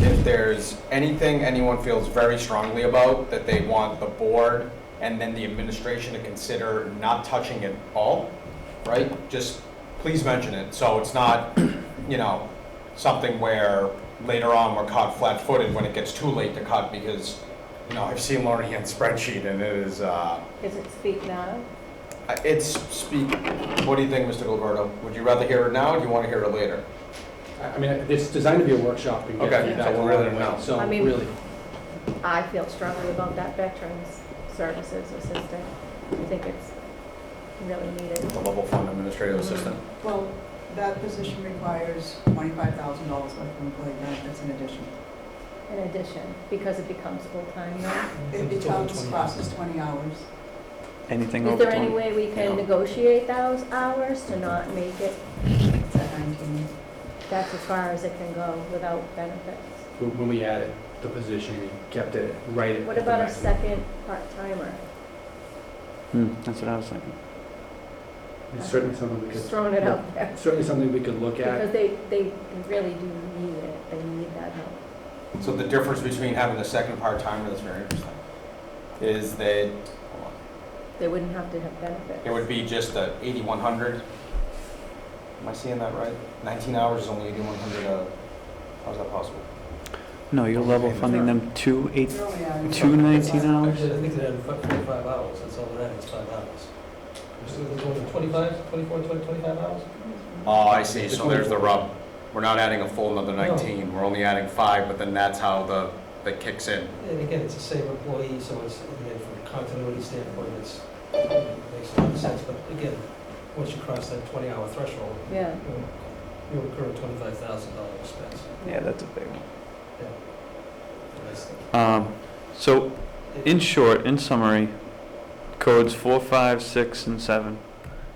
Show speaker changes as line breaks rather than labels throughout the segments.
if there's anything anyone feels very strongly about that they want the board and then the administration to consider not touching at all, right? Just please mention it, so it's not, you know, something where later on we're caught flat-footed when it gets too late to cut, because, you know, I've seen Lauren Hand's spreadsheet and it is, uh,
Is it speak now?
uh, It's speak, what do you think, Mr. Gilberto? Would you rather hear it now, or do you want to hear it later?
I I mean, it's designed to be a workshop and
Okay,
get feedback
so
along
rather
the way,
now.
so
I mean-
really.
I feel strongly about that veterans services assistant. I think it's really needed.
The level fund administrative assistant.
Well, that position requires twenty-five thousand dollars worth of employee benefits in addition.
In addition, because it becomes full-time now.
It becomes, crosses twenty hours.
Anything
Is
over
there any
20?
way we can
Yeah.
negotiate those hours to not make it,
It's at nineteen.
that's as far as it can go without benefits?
When when we added the position, we kept it right at
What
the
about a
maximum.
second part-timer?
Hmm, that's what I was thinking.
It's Certainly something we
Just
could,
throwing it out there.
certainly something we could look
Because
at.
they, they really do need it. They need that help.
So the difference between having a second part-timer, that's very interesting, is that hold
They wouldn't have to have
on,
benefits.
it would be just a 8,100. Am I seeing that right? 19 hours is only 8,100, uh, how's that possible?
No, you're level funding them two eight,
It's early hours.
two nineteen hours?
Actually, I think they had fi- 25 hours, that's all they had, was five hours. So they're going to 25, 24, 20, 25 hours?
Oh, I see, so there's the rub. We're not adding a full another 19, we're only adding five, but then that's how the, that kicks in.
And again, it's the same employee, so it's, again, from a continuity standpoint, it's, it makes a lot of sense, but again, once you cross that 20-hour threshold,
Yeah.
you- you incur a $25,000 expense.
Yeah, that's a big one.
And that's the-
Um, So, in short, in summary, codes four, five, six, and seven,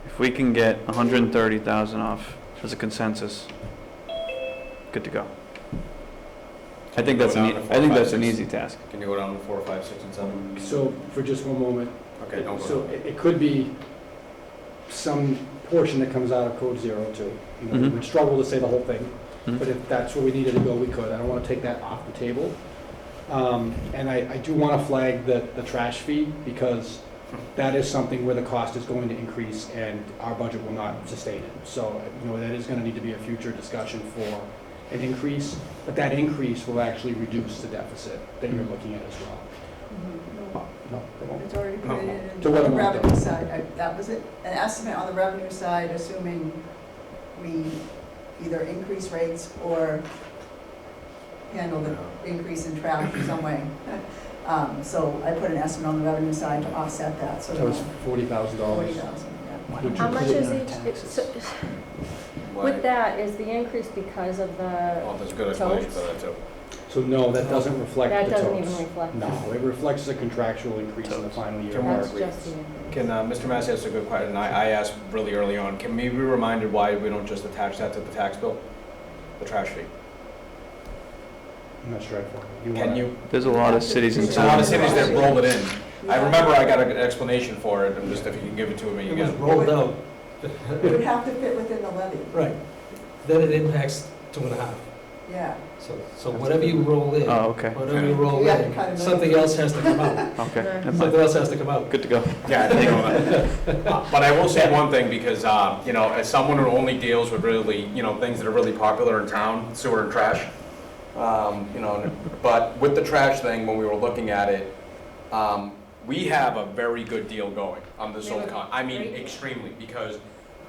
if we can get hundred and thirty thousand off as a consensus, good to go. I think that's an,
Go down
e-
to
I think
four,
that's
five,
an
six.
easy task.
Can you go down to four, five, six, and seven?
So for just one moment,
Okay, don't go.
so it it could be some portion that comes out of code zero too. You know,
Mhm.
We'd struggle to say the whole thing,
Mhm.
but if that's where we needed to go, we could. I don't want to take that off the table. Um, And I I do want to flag the the trash fee because that is something where the cost is going to increase and our budget will not sustain it. So, you know, that is going to need to be a future discussion for an increase, but that increase will actually reduce the deficit that you're looking at as well.
Mhm.
No, it won't.
It's already created in
To
the
Oh. what amount, though?
revenue side. I- That was it, an estimate on the revenue side, assuming we either increase rates or handle the increase in traffic in some way. Um, So I put an estimate on the revenue side to offset that, so.
That was forty thousand
Forty
dollars.
thousand, yeah.
Would you
How
put
much
it
is
in our
each, it's- so-
Why-
with that, is the increase because of the,
Well, there's a good explanation for that, too.
So no, that doesn't reflect
that
the
doesn't even
totals.
reflect.
No, it reflects the contractual increase in the
Totals.
final year.
Can we-
mark.
That's just the increase.
Can, uh, Mr. Massey asked a good question, and I, I asked really early on, can we be reminded why we don't just attach that to the tax bill? The trash fee?
I'm not sure. I follow.
Can
wanna-
you,
There's a lot of cities and
there's a lot of
towns.
cities that roll it in. I remember I got an explanation for it, and just if you can give it to me
It was
again.
rolled out,
It would have to fit within the levy,
right. Then it impacts two and a half.
yeah.
So, so whatever you roll in,
Oh, okay,
whatever you roll
You have to cut
in,
another-
something else has to come out.
okay,
Right.
never mind.
Something else has to come out.
good to go.
Yeah, I think of that. Uh, But I will say one thing, because, uh, you know, as someone who only deals with really, you know, things that are really popular in town, sewer and trash, um, you know, but with the trash thing, when we were looking at it, um, we have a very good deal going on this old con, I mean, extremely, because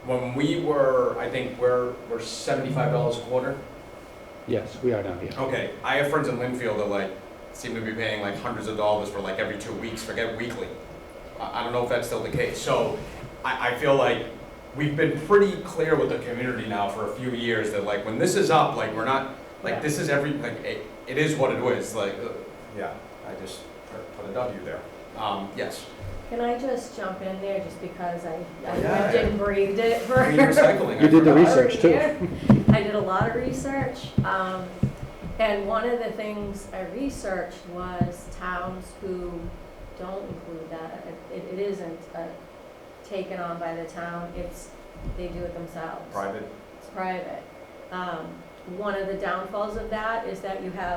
when we were, I think, we're, we're seventy-five dollars a quarter.
Yes, we are now, yeah.
Okay, I have friends in Linfield that like seem to be paying like hundreds of dollars for like every two weeks, forget weekly. I, I don't know if that's still the case. So I, I feel like we've been pretty clear with the community now for a few years that like when this is up, like we're not, like this is every, like it, it is what it is, like, uh, yeah, I just put- put a W there. Um, yes.
Can I just jump in there just because I, I
Yeah.
lived and breathed it for.
Green recycling. I
You did the
forgot.
research. too.
I did a lot of research, um, and one of the things I researched was towns who don't include that. It, it isn't, uh, taken on by the town, it's, they do it themselves.
Private
It's private. Um, one of the downfalls of that is that you have